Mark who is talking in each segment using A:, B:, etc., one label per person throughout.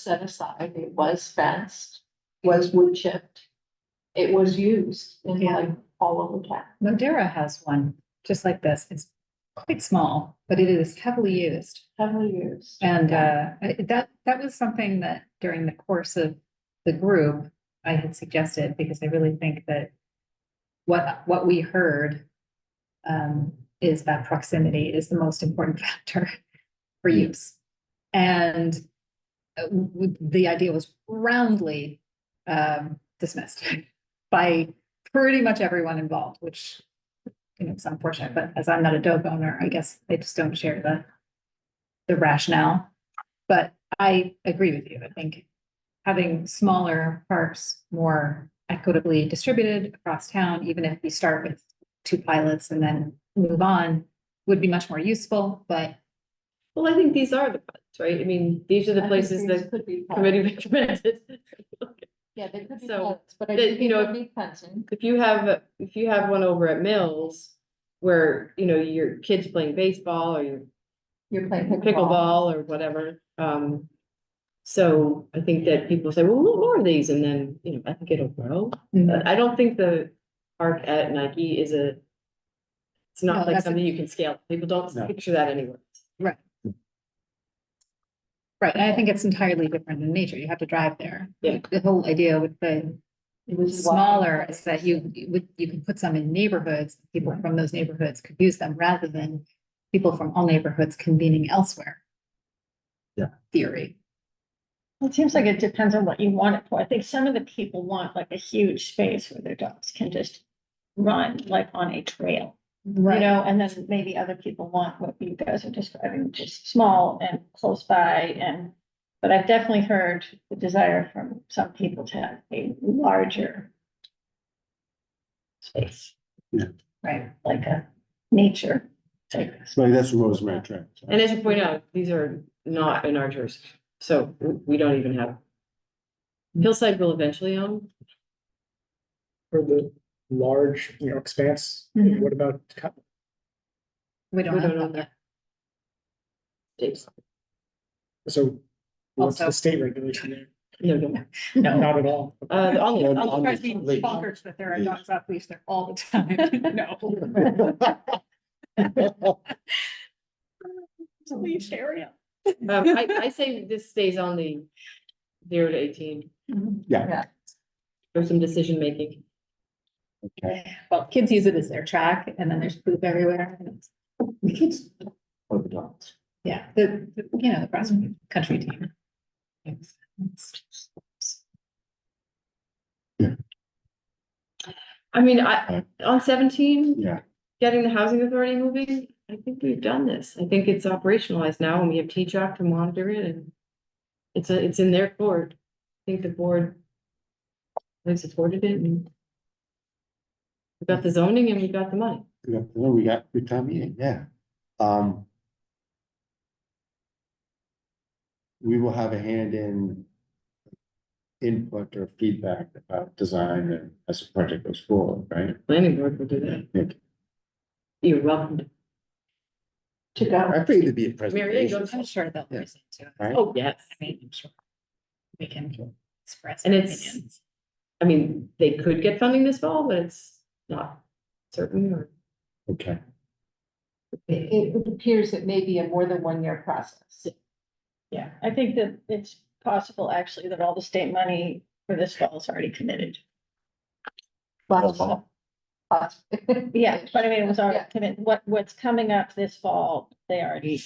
A: set aside, it was fenced, was wood chipped. It was used in
B: Yeah.
A: like all over town.
B: Modera has one, just like this. It's quite small, but it is heavily used.
A: Heavily used.
B: And uh, I- that, that was something that during the course of the group, I had suggested, because I really think that what, what we heard um, is that proximity is the most important factor for use. And uh, w- w- the idea was roundly um, dismissed by pretty much everyone involved, which you know, it's unfortunate, but as I'm not a dog owner, I guess I just don't share the the rationale. But I agree with you. I think having smaller parks more equitably distributed across town, even if we start with two pilots and then move on, would be much more useful, but
C: Well, I think these are the ones, right? I mean, these are
A: I
C: the
A: think
C: places
A: these
C: that
A: Could be. fenced.
C: committee recommended.
A: Yeah, they could be
C: So,
A: fenced, but I
C: that,
A: think
C: you
A: it
C: know,
A: would be fencing.
C: If you have, if you have one over at Mills where, you know, your kids playing baseball or your
A: You're playing pickleball.
C: pickleball or whatever, um. So I think that people say, well, what more of these? And then, you know, I think it'll grow. But I don't think the park at Nike is a. It's
B: No,
C: not like
B: that's a-
C: something you can scale. People don't
D: No.
C: picture that anywhere.
B: Right, and I think it's entirely different in nature. You have to drive there.
C: Yeah.
B: The whole idea with the
A: It was walking
B: smaller is
A: place.
B: that you you would, you can put some in neighborhoods, people from those neighborhoods could use them rather than people from all neighborhoods convening elsewhere.
D: Yeah.
B: Theory.
E: It seems like it depends on what you want it for. I think some of the people want like a huge space where their dogs can just run like on a trail, you
B: Right.
E: know, and then maybe other people want what you guys are describing, just small and close by and. But I've definitely heard the desire from some people to have a larger space.
D: Yeah.
E: Right, like a nature type.
D: So that's Rosemary Trail.
C: And as you point out, these are not in our jurisdiction, so we don't even have. Hillside will eventually own.
F: for the large, you know, expanse,
B: Mhm.
F: what about co-
B: We don't
C: We don't
B: have
C: own
B: that.
C: that. It's,
F: so what's the
B: Also-
F: state regulation there?
C: no, no,
F: Not at all.
C: uh, the only-
D: No,
B: All
D: on
B: the
D: the
B: crazy
D: leash.
B: bonkers that there are
D: Leash.
B: dogs off leash there all the time. No.
E: Leash area.
C: um, I, I say this stays on the zero to eighteen,
F: Mm-hmm.
C: for some decision making.
B: Well, kids use it as their track and then there's poop everywhere. and it's-
D: The kids or the dogs.
B: Yeah, the, the- you know, the cross country team. It's- it's-
C: I mean, I, on seventeen,
D: Yeah,
C: getting the housing authority moving, I think we've done this, I think it's operationalized now, and we have T-Jock to monitor it, and. It's a, it's in their court, I think the board. They supported it and. We got the zoning and we got the money.
D: we got, well, we got good time meeting, yeah. Um. We will have a hand in. Input or feedback about design and as the project goes forward, right?
C: Planning board will do that.
D: Nick?
C: You're welcome.
A: To go.
D: I think it'd be a
C: Mary, you
D: presentation.
C: go.
B: I'm sure they'll
D: Yeah.
B: listen to it.
D: Right?
C: Oh, yes.
B: I mean, I'm sure we can express.
C: And
B: our
C: it's-
B: opinions.
C: I mean, they could get funding this fall, but it's not certain or.
D: Okay,
A: It, it appears it may be a more than one year process.
E: Yeah, I think that it's possible actually that all the state money for this fall is already committed.
A: Possible. Possible.
E: Yeah, but I mean, it was already
A: Yeah.
E: committed. What, what's coming up this fall, they already,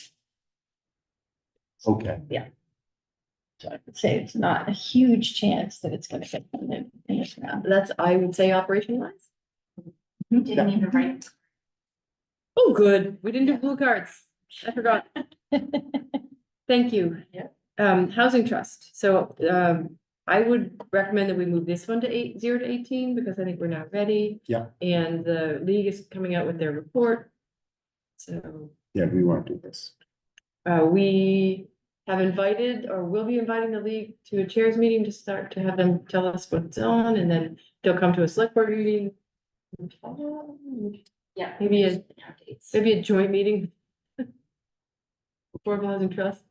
D: okay,
E: so I would say it's not a huge chance that it's gonna get funded in this round.
C: That's, I would say, operationalized.
D: Didn't
E: even write.
C: Oh, good. We didn't do blue cards. I forgot. Thank you.
E: Yeah.
C: Um, housing trust. So, um, I would recommend that we move this one to eight, zero to eighteen, because I think we're not ready.
D: Yeah.
C: And the league is coming out with their report. So.
D: yeah, we want to do this.
C: Uh, we have invited or will be inviting the league to a chairs meeting to start to have them tell us what's on and then they'll come to a select board meeting.
A: Yeah.
C: Maybe a, maybe a joint meeting. Affordable Housing Trust.